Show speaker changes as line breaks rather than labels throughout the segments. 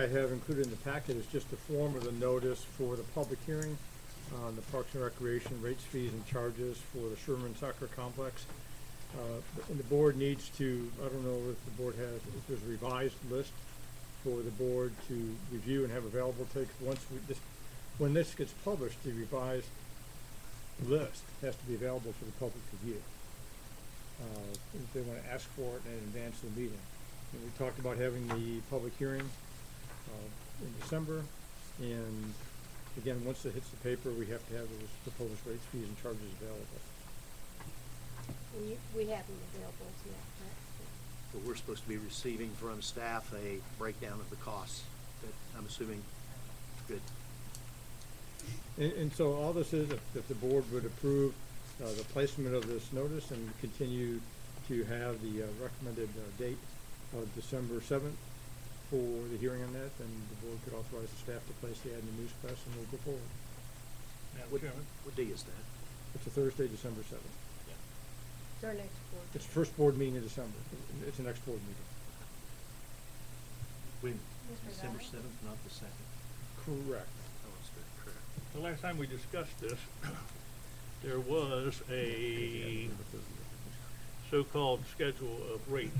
I have included in the packet is just the form of the notice for the public hearing on the Parks and Recreation rates, fees, and charges for the Sherman Soccer Complex. Uh, And the board needs to, I don't know if the board has, if there's a revised list for the board to review and have available, takes, once we, this, when this gets published, the revised list has to be available for the public to view. Uh, If they want to ask for it in advance of the meeting. And we talked about having the public hearing uh, in December. And again, once it hits the paper, we have to have those proposed rates, fees, and charges available.
And you, we have them available to that, correct?
But we're supposed to be receiving from staff a breakdown of the costs, but I'm assuming, good.
And, and so all this is, if, if the board would approve, uh, the placement of this notice and continue to have the uh, recommended, uh, date of December seventh for the hearing on that, then the board could authorize the staff to place the ad in the newspress and we'll go forward.
What, what day is that?
It's a Thursday, December seventh.
It's our next board.
It's the first board meeting in December. It's the next board meeting.
When?
Mr.
December
Guy?
seventh, not the second.
Correct.
Oh, it's good, correct.
The last time we discussed this, there was a so-called schedule of rates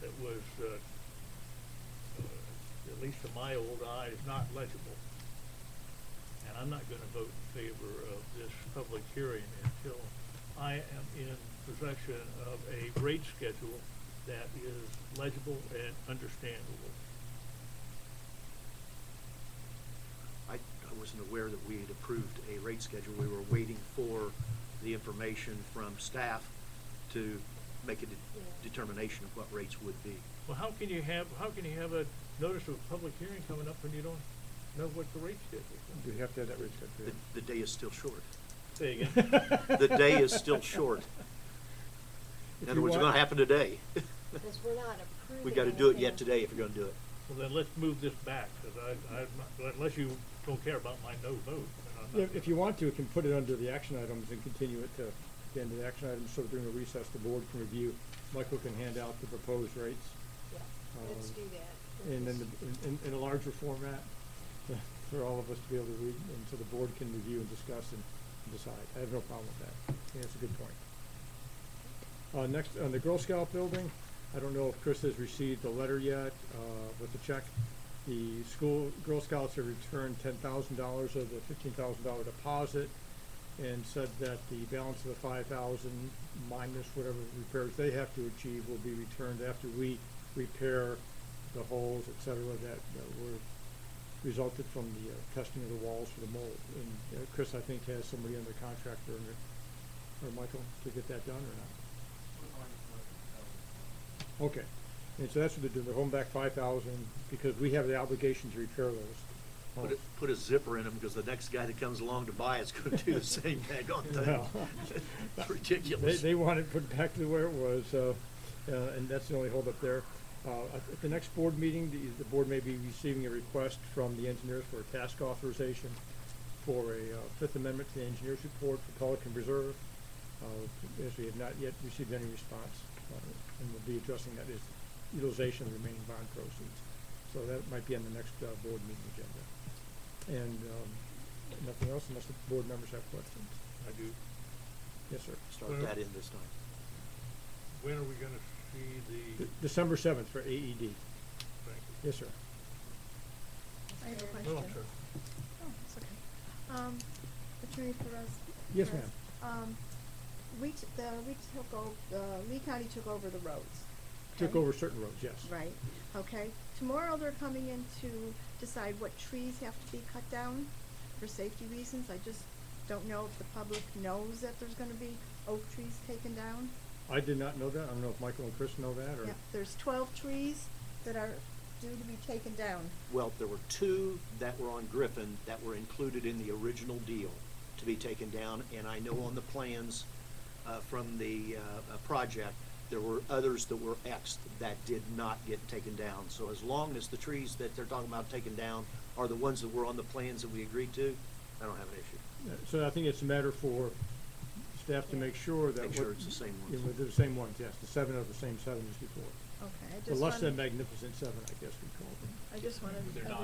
that was, uh, uh, at least to my old eye, is not legible. And I'm not gonna vote in favor of this public hearing until I am in possession of a rate schedule that is legible and understandable.
I, I wasn't aware that we had approved a rate schedule. We were waiting for the information from staff to make a de-
Yeah.
determination of what rates would be.
Well, how can you have, how can you have a notice of a public hearing coming up when you don't know what the rate schedule is?
We have to have that rate
The, the day is still short.
Say again.
scheduled.
The day is still short.
If
In
you
other words, it's
want-
gonna happen today.
Because we're not approving.
We gotta do it yet
anything.
today if you're gonna do it.
Well, then let's move this back, because I, I'm not, unless you don't care about my no vote. then I'm not
If, if you want to, you can put it under the action items and continue it to the end of the action items, so during the recess, the board can review. Michael can hand out the proposed rates,
Yeah, let's
Um,
do that.
and then, the- in, in a larger format, for all of us to be able to read, and so the board can review and discuss and decide. I have no problem with that. I think that's a good point. Uh, next, on the Girl Scout building, I don't know if Chris has received the letter yet, uh, with the check. The school, Girl Scouts have returned ten thousand dollars of the fifteen thousand dollar deposit and said that the balance of the five thousand minus whatever repairs they have to achieve will be returned after we repair the holes, et cetera, that, that were resulted from the uh, testing of the walls for the mold. And uh, Chris, I think, has somebody under contract or, or Michael to get that done or not? Okay, and so that's what they're doing, they're holding back five thousand, because we have the obligation to repair those.
Put a, put a zipper in them, because the next guy that comes along to buy it's gonna do the same daggone thing.
Well,
It's
They,
ridiculous.
they want it put back to where it was, uh, uh, and that's the only holdup there. Uh, at at the next board meeting, the, the board may be receiving a request from the engineers for a task authorization for a, uh, Fifth Amendment to the engineers report for Pelican Reserve, uh, as we have not yet received any response. uh, And we'll be addressing that is utilization of the remaining bond proceeds. So that might be on the next, uh, board meeting agenda. And, um, nothing else unless the board members have questions.
I do.
Yes, sir.
Start that in this time.
When are we gonna see the,
De- December seventh for AED.
thank you.
Yes, sir.
I have a question.
No, I'm sorry.
Oh, it's okay. Um, Attorney Perez.
Yes,
Perez, Um, we, t- the, we took o- uh, Lee County took over the roads.
Took
okay?
over certain roads, yes.
Right, okay. Tomorrow they're coming in to decide what trees have to be cut down for safety reasons. I just don't know if the public knows that there's gonna be oak trees taken down.
I did not know that. I don't know if Michael and Chris know that, or,
Yeah, there's twelve trees that are due to be taken down.
Well, there were two that were on Griffin that were included in the original deal to be taken down, and I know on the plans, uh, from the, uh, uh, project, there were others that were Xed that did not get taken down. So as long as the trees that they're talking about taking down are the ones that were on the plans that we agreed to, I don't have an issue.
so I think it's a matter for staff to make sure that.
Make
what-
sure it's the same ones.
Yeah, well, They're the same ones, yes. The seven are the same seven as before.
Okay, I just
The
wanted.
less than magnificent seven, I guess we call them.
I I just wanted
They're
everyone-
not